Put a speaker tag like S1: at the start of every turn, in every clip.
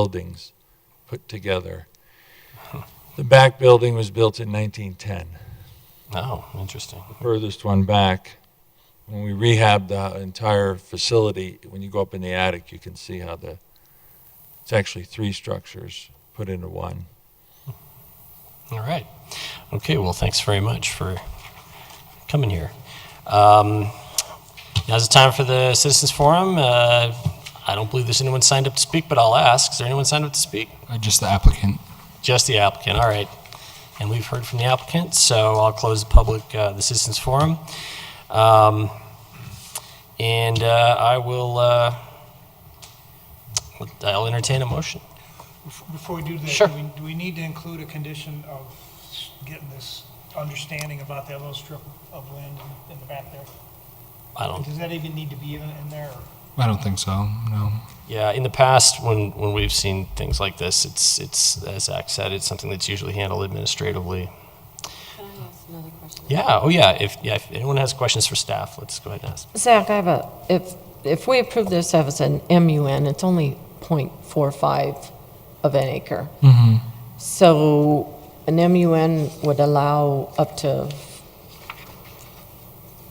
S1: buildings put together. The back building was built in 1910,
S2: Oh, interesting.
S1: the furthest one back. When we rehabbed the entire facility, when you go up in the attic, you can see how the, it's actually three structures put into one.
S2: All right. Okay, well, thanks very much for coming here. Um, Now's the time for the citizens forum. Uh, I don't believe there's anyone signed up to speak, but I'll ask. Is there anyone signed up to speak?
S3: Uh, Just the applicant.
S2: Just the applicant, all right. And we've heard from the applicant, so I'll close the public, uh, the citizens forum. Um, And uh, I will, uh, I'll entertain a motion.
S4: Before we do that,
S2: Sure.
S4: do we, do we need to include a condition of getting this understanding about that little strip of land in- in the back there?
S2: I don't
S4: Does that even need to be in, in there? or-
S3: I don't think so. No.
S2: Yeah, in the past, when, when we've seen things like this, it's, it's, as Zach said, it's something that's usually handled administratively.
S5: Can I ask another question?
S2: Yeah, oh yeah, if, yeah, if anyone has questions for staff, let's go ahead and ask.
S5: Zach, I have a, if, if we approve this as an MUN, it's only .45 of an acre. So an MUN would allow up to,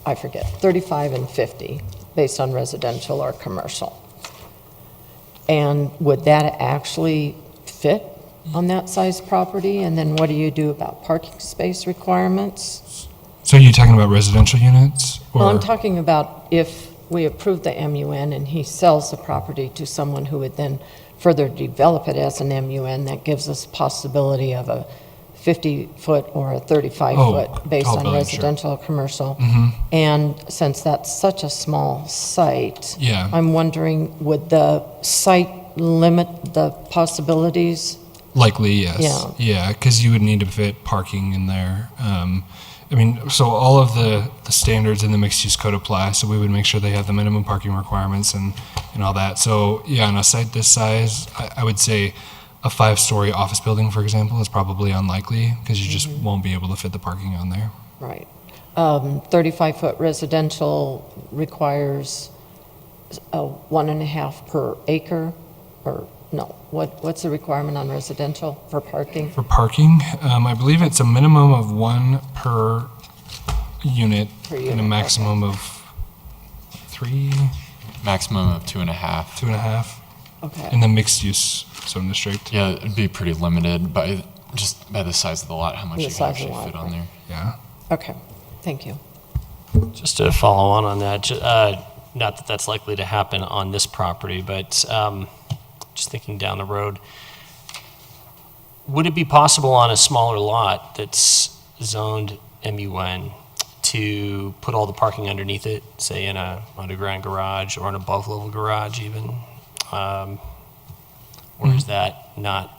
S5: I forget, 35 and 50, based on residential or commercial. And would that actually fit on that size property? And then what do you do about parking space requirements?
S3: So you're talking about residential units? Or,
S5: Well, I'm talking about if we approve the MUN and he sells the property to someone who would then further develop it as an MUN, that gives us possibility of a 50-foot or a
S3: Oh,
S5: 35-foot based
S3: tall building, sure.
S5: on
S3: Mm-hmm.
S5: residential or commercial. And since that's such a small site,
S3: Yeah.
S5: I'm wondering, would the site limit the possibilities?
S3: Likely, yes.
S5: Yeah.
S3: because you would need to fit parking in there. Um, I mean, so all of the, the standards in the mixed use code apply, so we would make sure they have the minimum parking requirements and, and all that. So, yeah, on a site this size, I, I would say a five story office building, for example, is probably unlikely because you just
S5: Mm-hmm.
S3: won't be able to fit the parking on there.
S5: Right. Um, 35-foot residential requires a one and a half per acre, or, no, what, what's the requirement on residential for parking?
S3: For parking, um, I believe it's a minimum of one per unit
S5: Per
S3: and a
S5: unit,
S3: maximum of three,
S6: Maximum of two and a half.
S3: two and a half in
S5: Okay,
S3: the mixed use zone district.
S6: Yeah, it'd be pretty limited by just by the size of the lot, how much
S5: The
S6: you
S5: size
S6: can
S5: of the
S6: actually
S5: lot,
S6: fit on
S5: right.
S6: there.
S3: Yeah.
S5: okay, thank you.
S2: Just to follow on on that, ju- uh, not that that's likely to happen on this property, but um, just thinking down the road, would it be possible on a smaller lot that's zoned MUN to put all the parking underneath it, say in a underground garage or an above-level garage even? Um, Or is that not?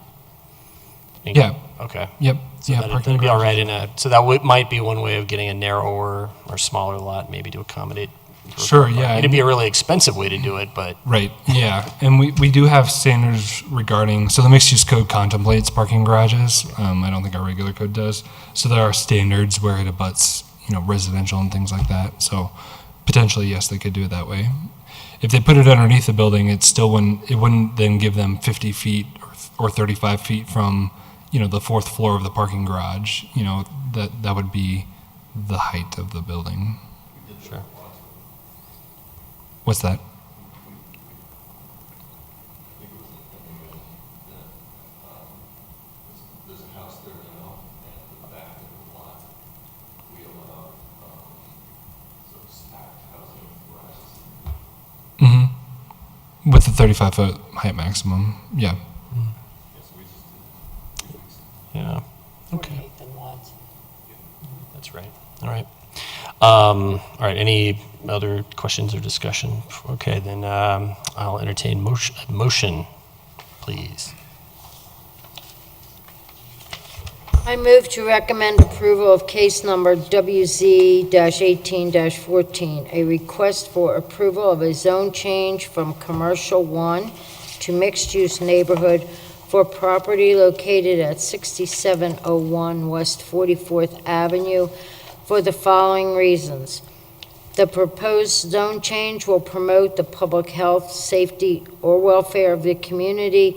S3: Yeah.
S2: Okay.
S3: Yep.
S2: So
S3: yeah.
S2: that
S3: parking
S2: would be
S3: garage.
S2: all right in a, so that would, might be one way of getting a narrower or smaller lot, maybe to accommodate. for-
S3: Sure, yeah,
S2: It'd be a really expensive way to do it, but
S3: Right. Yeah. And we, we do have standards regarding, so the mixed use code contemplates parking garages. Um, I don't think our regular code does. So there are standards where it abuts, you know, residential and things like that. So potentially, yes, they could do it that way. If they put it underneath the building, it still wouldn't, it wouldn't then give them 50 feet or, or 35 feet from, you know, the fourth floor of the parking garage. You know, that, that would be the height of the building.
S2: Sure.
S3: What's that? hmm Mm-hmm. With the 35 foot height maximum. Yeah.
S2: yeah, okay, that's right. All right. Um, all right, any other questions or discussion? Okay, then, um, I'll entertain motion, motion, please.
S7: I move to recommend approval of case number WZ-18-14, a request for approval of a zone change from Commercial 1 to mixed-use neighborhood for property located at 6701 West 44th Avenue for the following reasons. The proposed zone change will promote the public health, safety, or welfare of the community